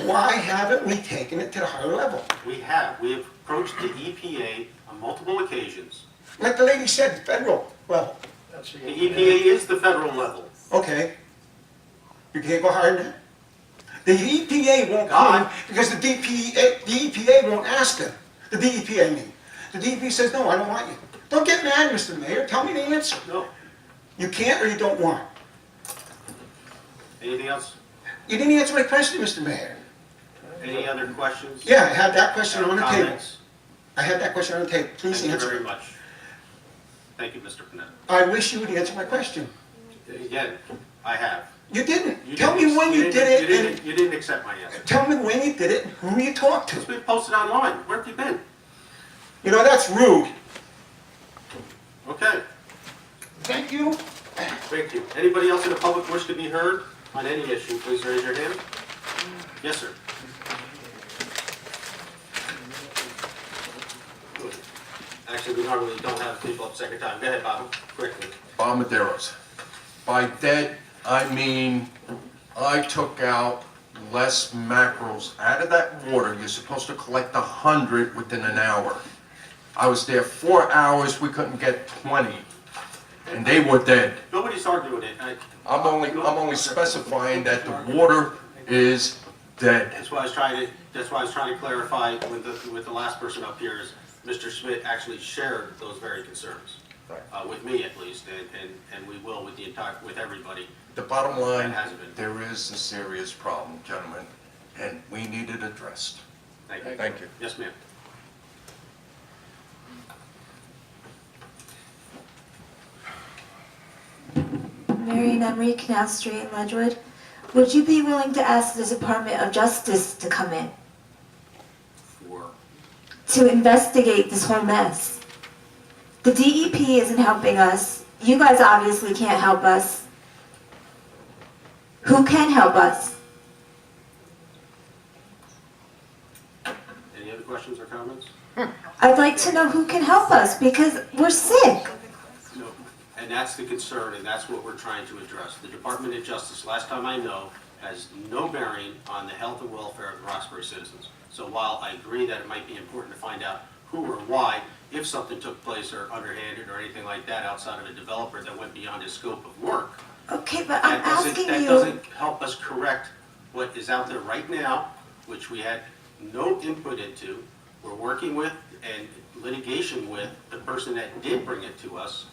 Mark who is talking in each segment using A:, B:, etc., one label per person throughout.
A: Why haven't we taken it to the higher level?
B: We have, we have approached the EPA on multiple occasions.
A: Like the lady said, federal level,
C: That's the
B: The EPA is the federal level.
A: okay? You can't go higher than that? The EPA won't
B: God.
A: come, because the DPA, the EPA won't ask them, the DEP, I mean. The DEP says, no, I don't want you. Don't get mad, Mr. Mayor, tell me the answer.
B: No,
A: You can't or you don't want.
B: anything else?
A: You didn't answer my question, Mr. Mayor.
B: Any other questions?
A: Yeah, I had that question on the table.
B: Comments?
A: I had that question on the table, please
B: Thank you
A: answer
B: very
A: it.
B: much. Thank you, Mr. Panetta.
A: I wish you would answer my question.
B: Again, I have.
A: You didn't.
B: You
A: Tell me
B: didn't-
A: when you
B: didn't-
A: did
B: you
A: it,
B: didn't- You didn't accept my answer.
A: and tell me when you did it, and who you talked to.
B: It's been posted online. Where have you been?
A: You know, that's rude.
B: Okay,
A: Thank you.
B: thank you. Anybody else in the public wish to be heard on any issue, please raise your hand. Yes, sir. Actually, we normally don't have people up second time. Go ahead, Bob, quickly.
D: Bombarderos. By dead, I mean, I took out less mackerels out of that water. You're supposed to collect a hundred within an hour. I was there four hours, we couldn't get twenty, and they were dead.
B: Nobody's arguing it. I-
D: I'm only, I'm only specifying that the water is dead.
B: That's why I was trying to, that's why I was trying to clarify with the, with the last person up here is Mr. Schmidt actually shared those very concerns. Uh, with me at least, and, and, and we will with the entire, with everybody.
D: The bottom line, there is a serious problem, gentlemen, and we need it addressed.
B: Thank you.
D: Thank you.
B: Yes, ma'am.
E: Marion Emery, Canal Street, Ledgewood. Would you be willing to ask the Department of Justice to come in
B: For,
E: to investigate this whole mess? The DEP isn't helping us. You guys obviously can't help us. Who can help us?
B: any other questions or comments?
E: I'd like to know who can help us because we're sick.
B: No. And that's the concern, and that's what we're trying to address. The Department of Justice, last time I know, has no bearing on the health and welfare of the Roxbury citizens. So while I agree that it might be important to find out who or why, if something took place or underhanded or anything like that outside of a developer that went beyond his scope of work,
E: Okay, but I'm
B: that doesn't,
E: asking
B: that
E: you.
B: doesn't help us correct what is out there right now, which we had no input into. We're working with and litigation with the person that did bring it to us.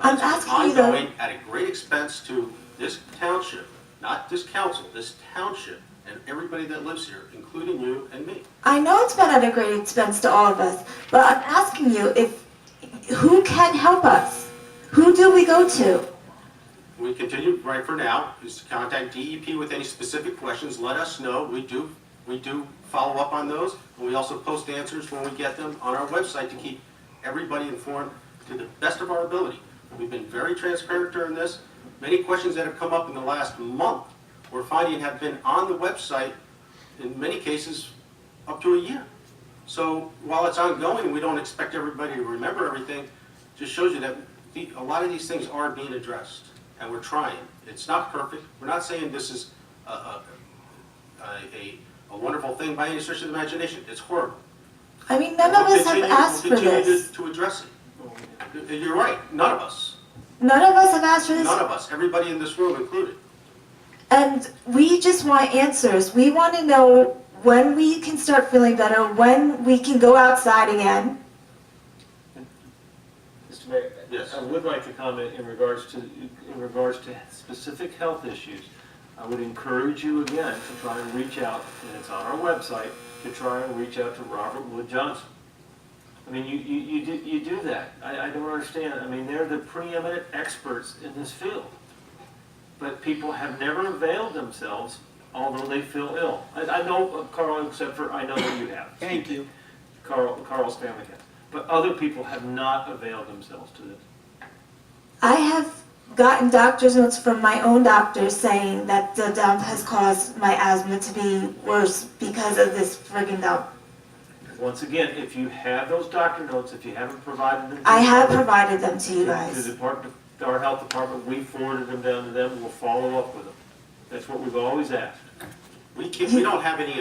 E: I'm
B: It's
E: asking you though-
B: Ongoing at a great expense to this township, not this council, this township, and everybody that lives here, including you and me.
E: I know it's been at a great expense to all of us, but I'm asking you if who can help us? Who do we go to?
B: We continue, right for now, is to contact DEP with any specific questions, let us know, we do, we do follow up on those, and we also post answers when we get them on our website to keep everybody informed to the best of our ability. We've been very transparent during this, many questions that have come up in the last month, we're finding have been on the website, in many cases, up to a year. So while it's ongoing, we don't expect everybody to remember everything, just shows you that the- a lot of these things are being addressed, and we're trying. It's not perfect, we're not saying this is a, a, a- a, a wonderful thing by any stretch of the imagination, it's horrible.
E: I mean, none of
B: We'll
E: us have
B: continue-
E: asked for
B: We'll continue
E: this.
B: to- to address it. You're right, none of us,
E: None of us have asked for
B: none
E: this,
B: of us, everybody in this room included.
E: and we just want answers. We want to know when we can start feeling better, when we can go outside again.
F: Mr. Mayor?
B: Yes.
F: I would like to comment in regards to, in regards to specific health issues. I would encourage you again to try and reach out, and it's on our website, to try and reach out to Robert Wood Johnson. I mean, you, you, you do, you do that. I, I don't understand. I mean, they're the preeminent experts in this field. But people have never availed themselves, although they feel ill. I, I know, uh, Carl, except for, I know that you have. Thank you. Carl, Carl's family has. But other people have not availed themselves to this.
E: I have gotten doctor's notes from my own doctor saying that the dump has caused my asthma to be worse because of this friggin' dump.
F: Once again, if you have those doctor notes, if you haven't provided them. to
E: I
F: the
E: have
F: department-
E: provided them to you
F: To the
E: guys.
F: department, to our health department, we forwarded them down to them, we'll follow up with them. That's what we've always asked.
B: We can't, we don't have any